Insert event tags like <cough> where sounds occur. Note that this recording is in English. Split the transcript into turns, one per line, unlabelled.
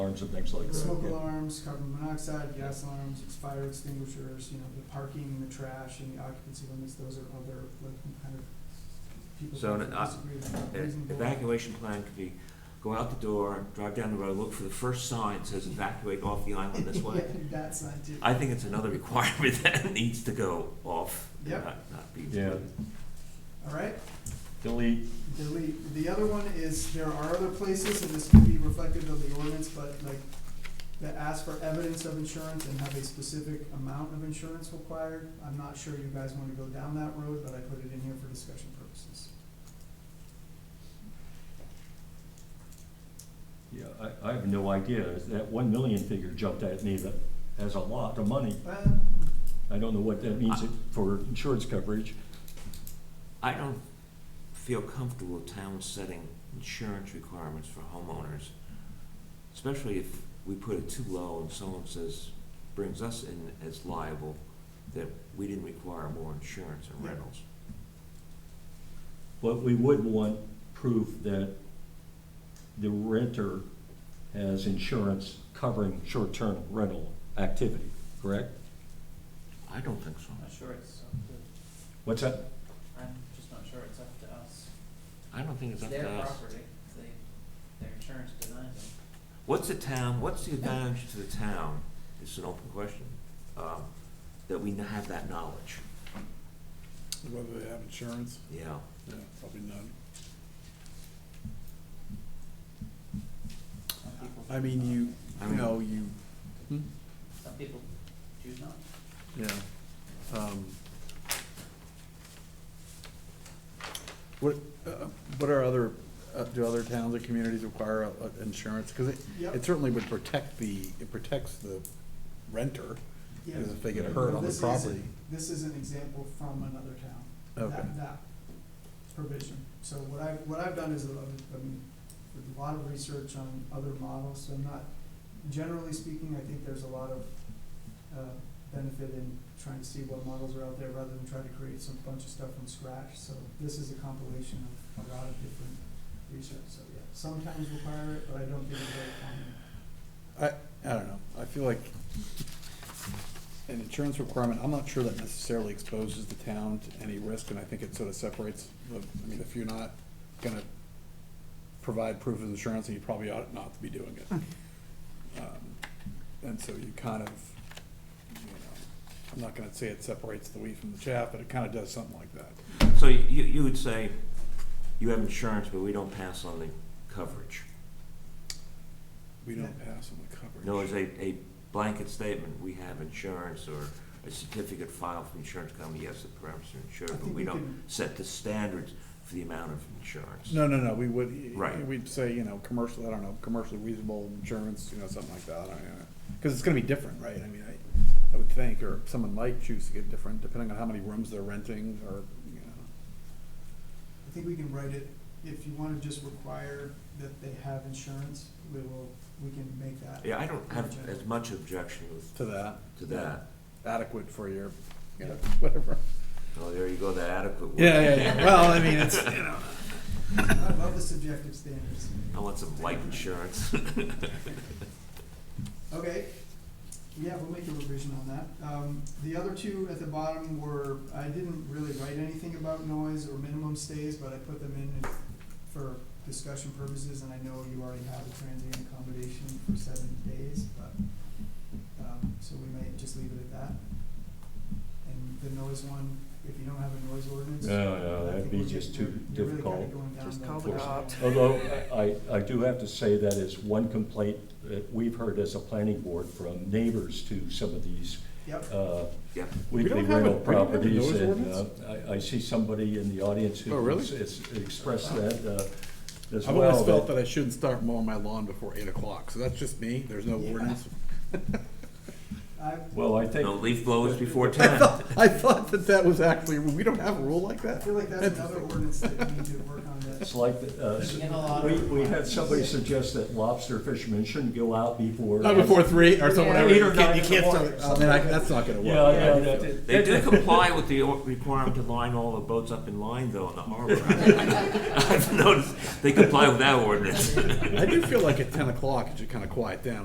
alarms and things like that.
Smoke
yeah.
alarms, carbon monoxide, gas alarms, fire extinguishers, you know, the parking, the trash, and the occupancy limits, those are other, like, kind of, people
So,
who
uh,
disagree with
E-
reasonable.
Evacuation plan could be, go out the door, drive down the road, look for the first sign that says evacuate off the island this
<laughs>
way.
Yeah, that side too.
I think it's another requirement <laughs> that needs to go off, and
Yep.
not, not be
Yeah.
included.
All right,
Delete,
delete. The other one is, there are other places, and this could be reflective of the ordinance, but like, that ask for evidence of insurance and have a specific amount of insurance required. I'm not sure you guys wanna go down that road, but I put it in here for discussion purposes.
yeah, I, I have no idea, that one million figure jumped at me, that, as a lot of money.
Uh,
I don't know what that means for insurance coverage.
I don't feel comfortable with towns setting insurance requirements for homeowners, especially if we put it too low and someone says, brings us in as liable, that we didn't require more insurance and
Yeah.
rentals.
But we would want proof that the renter has insurance covering short-term rental activity, correct?
I don't think so.
I'm not sure it's up to,
What's that?
I'm just not sure it's up to us.
I don't think it's
It's
up to
their
us.
property, they, their insurance denies them.
What's the town, what's the advantage to the town, it's an open question, um, that we have that knowledge,
Whether they have insurance,
you know?
yeah, probably none.
Some people.
I mean, you,
I
you
mean-
know, you,
Some people choose not.
yeah. um, What, uh, what are other, uh, do other towns or communities require uh, insurance? Because it,
Yep.
it certainly would protect the, it protects the renter,
Yeah.
because if they get
Yeah.
hurt on
This
the
is-
property.
This is an example from another town.
Okay,
That, that provision. So what I've, what I've done is, uh, I mean, with a lot of research on other models, so I'm not, generally speaking, I think there's a lot of, uh, benefit in trying to see what models are out there rather than try to create some bunch of stuff from scratch. So this is a compilation of a lot of different research, so yeah, sometimes require it, but I don't think it's very common.
I, I don't know, I feel like an insurance requirement, I'm not sure that necessarily exposes the town to any risk, and I think it sort of separates the, I mean, if you're not gonna provide proof of insurance, then you probably ought not to be doing it. Um, And so you kind of, you know, I'm not gonna say it separates the wheat from the chaff, but it kind of does something like that.
So you, you would say, you have insurance, but we don't pass on the coverage.
We don't pass on the coverage.
No, it's a, a blanket statement, we have insurance, or a certificate filed from insurance company, yes, the parameters are
I
insured, but
think
we don't
can-
set the standards for the amount of insurance.
No, no, no, we would,
Right.
we'd say, you know, commercial, I don't know, commercially reasonable insurance, you know, something like that, I don't Because it's gonna be different, right? I mean, I, I would think, or someone might choose to get different, depending on how many rooms they're renting, or, you know.
I think we can write it, if you wanna just require that they have insurance, we will, we can make that.
Yeah, I don't have as much objection with,
To that,
to that,
adequate for your, you know,
Yeah.
whatever.
oh, there you go, that adequate word.
Yeah, yeah, yeah, well, I mean, it's,
<laughs>
you know.
I love the subjective standards.
I want some life insurance. <laughs>
Okay, yeah, we'll make a revision on that. Um, the other two at the bottom were, I didn't really write anything about noise or minimum stays, but I put them in for discussion purposes, and I know you already have a transient accommodation for seven days, but, um, so we may just leave it at that. And the noise one, if you don't have a noise ordinance.
No, no,
I
Oh, uh, that'd
think
be
we're
just
you're-
too
you're really kinda
difficult.
going down
Just
the-
call the cops.
Although, I, I do have to say that is one complaint that we've heard as a planning board from neighbors to some of these
Yep.
uh,
Yeah.
We don't
weekly
have a-
rental
we don't have a
properties.
noise
And uh,
ordinance?
I, I see somebody in the audience who
Oh, really?
has- has expressed that uh, as
I've
well.
always felt that I shouldn't start mowing my lawn before eight o'clock, so that's just me, there's no
Yeah.
ordinance. <laughs>
I,
Well, I think.
No leaf blowers
<laughs>
before
I
ten.
thought, I thought that that was actually, we don't have a rule like
I
that?
feel like that's another
Interesting.
ordinance that we need to work on that.
It's like, uh,
There's been a lot
we,
of-
we had somebody suggest that lobster fishermen shouldn't go out before.
Not before three or something.
Yeah.
whatever.
Eight or
You can't-
nine
you
in the
can't
morning.
start- I mean, I, that's not gonna
Yeah,
work.
yeah, that-
They
<laughs>
do comply with the or- requirement to line all the boats up in line, though, in the
<laughs>
harbor. <laughs> I've noticed, they comply with that ordinance.
I do feel like at ten o'clock, it should kind of quiet down.